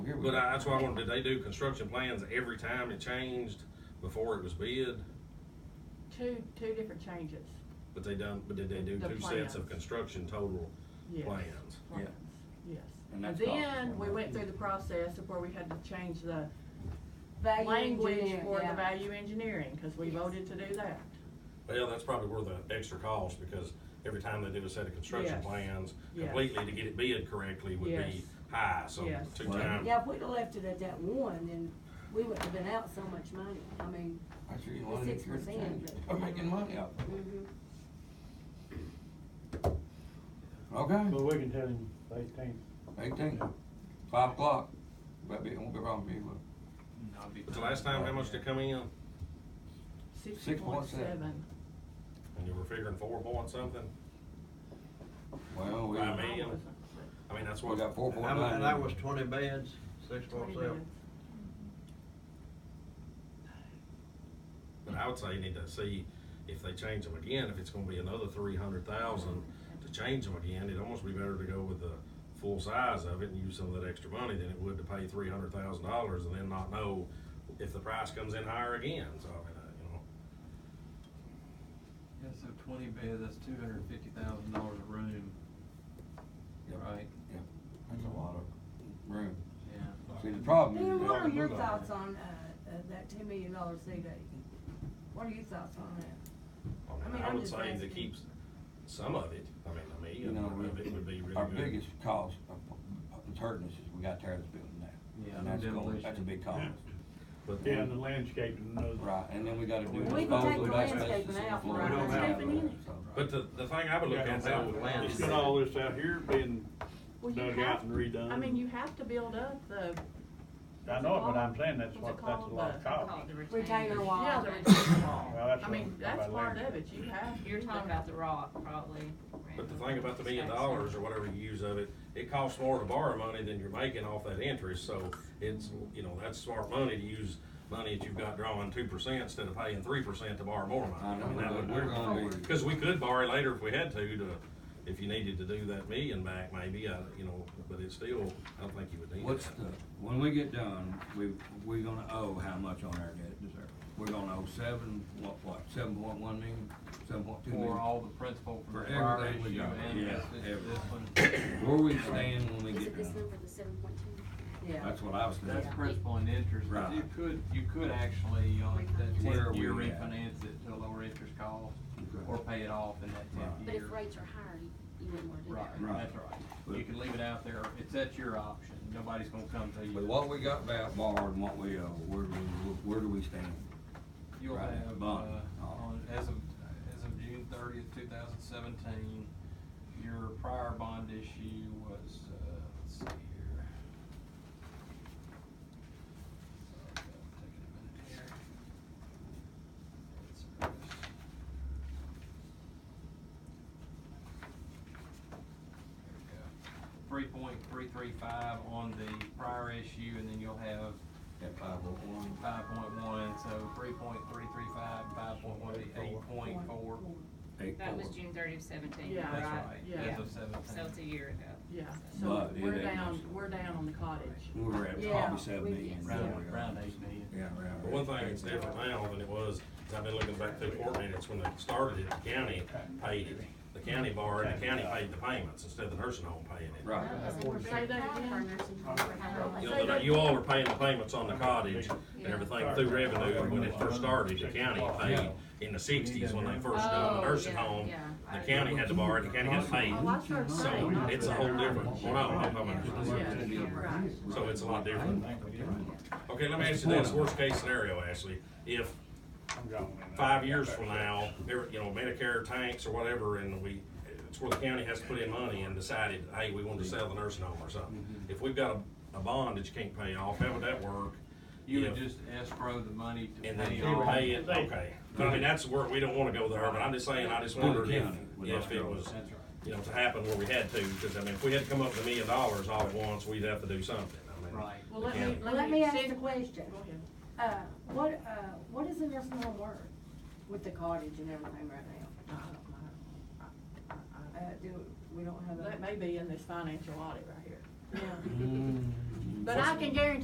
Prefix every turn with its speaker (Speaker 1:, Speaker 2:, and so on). Speaker 1: here we
Speaker 2: But
Speaker 1: go.
Speaker 2: I, that's why I wanted, did they do construction plans every time it changed before it was bid?
Speaker 3: Two, two different changes.
Speaker 2: But they done, but did they do
Speaker 3: The
Speaker 2: two sets
Speaker 3: plans.
Speaker 2: of construction total
Speaker 3: Yes.
Speaker 2: plans?
Speaker 3: Plans, Yes.
Speaker 1: And
Speaker 3: And
Speaker 1: that's cost us
Speaker 3: then
Speaker 1: more
Speaker 3: we
Speaker 1: money.
Speaker 3: went through the process of where we had to change the
Speaker 4: Value
Speaker 3: language
Speaker 4: engineer,
Speaker 3: for the
Speaker 4: yeah.
Speaker 3: value engineering, cause we
Speaker 4: Yes.
Speaker 3: voted to do that.
Speaker 2: Well, that's probably worth an extra cost, because every time they do a set of construction
Speaker 3: Yes.
Speaker 2: plans
Speaker 3: Yes.
Speaker 2: completely to get it bid correctly would
Speaker 3: Yes.
Speaker 2: be high, so
Speaker 3: Yes.
Speaker 2: two
Speaker 1: Well-
Speaker 2: times.
Speaker 4: Yeah, if we'd have left it at that one, then we wouldn't have been out so much money, I mean,
Speaker 1: I sure you
Speaker 4: the
Speaker 1: wanted to
Speaker 4: 6%,
Speaker 1: change it.
Speaker 4: but-
Speaker 1: I'm making money off of
Speaker 4: mhm.
Speaker 1: it. Okay,
Speaker 5: Well, we can tell him eighteen.
Speaker 1: eighteen, five o'clock. That'd be, it won't be wrong with you,
Speaker 2: But the last time, how much did it come in?
Speaker 3: Six point seven.
Speaker 2: And you were figuring four point something?
Speaker 1: but, well, we,
Speaker 2: I mean- I mean, that's
Speaker 1: we
Speaker 2: what.
Speaker 1: got four point
Speaker 6: And that-
Speaker 1: nine.
Speaker 6: and that was twenty beds, six foot
Speaker 3: Twenty
Speaker 6: seven.
Speaker 3: minutes.
Speaker 2: But I would say you need to see if they change them again, if it's gonna be another three hundred thousand to change them again, it'd almost be better to go with the full size of it and use some of that extra money than it would to pay three hundred thousand dollars and then not know if the price comes in higher again, so I mean, uh, you know.
Speaker 7: Yeah, so twenty bed, that's two hundred and fifty thousand dollars a room,
Speaker 1: Yep,
Speaker 7: right?
Speaker 1: yep. That's a lot of room.
Speaker 7: Yeah.
Speaker 1: See, the problem
Speaker 4: Dan,
Speaker 1: is,
Speaker 4: what are
Speaker 1: that-
Speaker 4: your thoughts on, uh, uh, that two million dollar CD? What are your thoughts on that? I
Speaker 2: I
Speaker 4: mean,
Speaker 2: mean, I
Speaker 4: I'm
Speaker 2: would
Speaker 4: just
Speaker 2: say to
Speaker 4: asking.
Speaker 2: keep some of it, I mean, to me,
Speaker 1: you know,
Speaker 2: of it would be really
Speaker 1: we-
Speaker 2: good.
Speaker 1: our biggest cause of, of hurting us is we got tired of this building now.
Speaker 7: Yeah,
Speaker 1: And that's
Speaker 7: no
Speaker 1: going,
Speaker 7: demolition.
Speaker 1: that's a big cause.
Speaker 2: But
Speaker 5: Yeah, and the landscaping, another.
Speaker 1: Right, and then we gotta do
Speaker 5: We can
Speaker 1: disposal
Speaker 4: take
Speaker 1: of
Speaker 4: the
Speaker 1: that
Speaker 4: landscaping
Speaker 1: asbestos and
Speaker 4: out,
Speaker 1: floor.
Speaker 4: right?
Speaker 1: and all
Speaker 4: Don't
Speaker 1: that,
Speaker 4: have any in it.
Speaker 1: so.
Speaker 2: But the, the thing I would look at
Speaker 5: Yeah,
Speaker 2: now
Speaker 6: the land.
Speaker 2: is
Speaker 5: It's got all this out here being
Speaker 3: Well, you
Speaker 5: dug out
Speaker 3: have-
Speaker 5: and redone.
Speaker 3: I mean, you have to build up the.
Speaker 5: I know it, but I'm saying that's
Speaker 3: what's it
Speaker 5: what, that's a
Speaker 3: called?
Speaker 5: lot
Speaker 3: The-
Speaker 5: of cost.
Speaker 8: The
Speaker 4: Retainer wall.
Speaker 3: Yeah, the retaining
Speaker 5: Oh. Well,
Speaker 3: wall.
Speaker 5: that's
Speaker 3: I mean,
Speaker 5: what-
Speaker 3: that's
Speaker 5: about
Speaker 3: part
Speaker 5: land.
Speaker 3: of it. You have.
Speaker 8: You're talking about the rock, probably.
Speaker 2: But the thing about the million dollars or whatever you use of it, it costs more to borrow money than you're making off that interest, so it's, you know, that's smart money to use money that you've got drawing two percent instead of paying three percent to borrow more
Speaker 1: I
Speaker 2: money.
Speaker 1: know,
Speaker 2: I mean, that
Speaker 1: but
Speaker 2: would
Speaker 1: we're gonna
Speaker 2: work.
Speaker 1: be-
Speaker 2: Cause we could borrow later if we had to, to, if you needed to do that million back maybe, I, you know, but it's still, I don't think you would need
Speaker 1: What's
Speaker 2: it.
Speaker 1: the, when we get done, we, we're gonna owe how much on our debt reserve? We're gonna owe seven, what, what, seven point one million, seven point two million?
Speaker 7: For all the principal from
Speaker 1: For
Speaker 7: the prior
Speaker 1: everything we
Speaker 7: issue
Speaker 1: got.
Speaker 7: and
Speaker 1: Yeah,
Speaker 7: this, this, this one.
Speaker 1: Where we stand when we
Speaker 9: Is
Speaker 1: get
Speaker 9: it this
Speaker 1: done?
Speaker 9: number, the seven point two?
Speaker 4: Yeah,
Speaker 1: That's what I was thinking.
Speaker 7: That's principal and interest, but you
Speaker 1: Right.
Speaker 7: could, you could actually, uh, on that
Speaker 1: Where are
Speaker 7: tenth year
Speaker 1: we at?
Speaker 7: refinance it to a lower interest cost,
Speaker 1: Okay.
Speaker 7: or pay it off in that
Speaker 1: Right.
Speaker 7: tenth
Speaker 9: But
Speaker 7: year.
Speaker 9: if rates are higher, you- you wouldn't want to do
Speaker 7: Right,
Speaker 9: that.
Speaker 1: Right.
Speaker 7: that's right. You can leave it out there, it's at your option, nobody's gonna come to you.
Speaker 1: But what we got back borrowed and what we owe, where do we, where do we stand?
Speaker 7: You'll
Speaker 1: Right,
Speaker 7: have, uh,
Speaker 1: bond.
Speaker 7: on, as of, as of June thirtieth, two thousand seventeen, your prior bond issue was, uh, let's see here. Sorry, I've taken a minute here. Let's see this. There we go. Three point three three five on the prior issue, and then you'll have
Speaker 1: At five oh one?
Speaker 7: Five point one, so three point three three five, five point one, eight point four.
Speaker 1: Eight
Speaker 8: That was
Speaker 1: four.
Speaker 8: June thirty of seventeen,
Speaker 3: Yeah.
Speaker 7: That's
Speaker 8: right?
Speaker 7: right,
Speaker 3: Yeah.
Speaker 7: as of
Speaker 8: So it's a
Speaker 7: seventeen.
Speaker 8: year ago.
Speaker 3: Yeah, so
Speaker 1: But it
Speaker 3: we're
Speaker 1: ain't
Speaker 3: down,
Speaker 1: much.
Speaker 3: we're down on the cottage.
Speaker 1: We're at
Speaker 4: Yeah,
Speaker 1: probably seven
Speaker 4: we-
Speaker 1: million.
Speaker 7: Round, round eight million.
Speaker 1: Yeah, round.
Speaker 2: But one thing that's different now than it was, is I've been looking back through court minutes, when they started it, the county paid it. The county borrowed, the county paid the payments instead of the nursing home paying it.
Speaker 1: Right.
Speaker 3: Say that again.
Speaker 2: You know, that you all were paying the payments on the cottage and everything through revenue, when it first started, the county paid in the sixties when they first done
Speaker 8: Oh,
Speaker 2: the nursing home. The county had to borrow, it, the county had to pay,
Speaker 3: Oh, I started
Speaker 2: so
Speaker 3: saying, not
Speaker 2: it's a whole different, well, no, I'm talking about-
Speaker 3: Yeah, right.
Speaker 2: so it's a lot different. Okay, let me ask you this, worst case scenario, Ashley, if
Speaker 5: I'm gone in there.
Speaker 2: five years from now, every- you know, Medicare tanks or whatever, and we, it's where the county has to put in money and decided, hey, we want to sell the nursing home or something.
Speaker 7: Mm-hmm.
Speaker 2: If we've got a, a bond that you can't pay off, how would that work?
Speaker 7: You would
Speaker 2: If-
Speaker 7: just escrow the money to
Speaker 2: And then
Speaker 7: pay
Speaker 2: you
Speaker 7: off.
Speaker 2: pay it, okay. But I mean, that's where, we don't wanna go there, but I'm just saying, I just wondered if, if it was,
Speaker 7: That's right.
Speaker 2: you know, to happen where we had to, because I mean, if we had to come up with a million dollars all at once, we'd have to do something, I mean.
Speaker 7: Right.
Speaker 3: Well, let me,
Speaker 4: Let me ask
Speaker 3: see-
Speaker 4: the question.
Speaker 3: Go ahead.
Speaker 4: uh, what, uh, what is the nursing home worth with the cottage and everything right now? Uh, do, we don't have a.
Speaker 3: That may be in this financial audit right here. yeah. But I can guarantee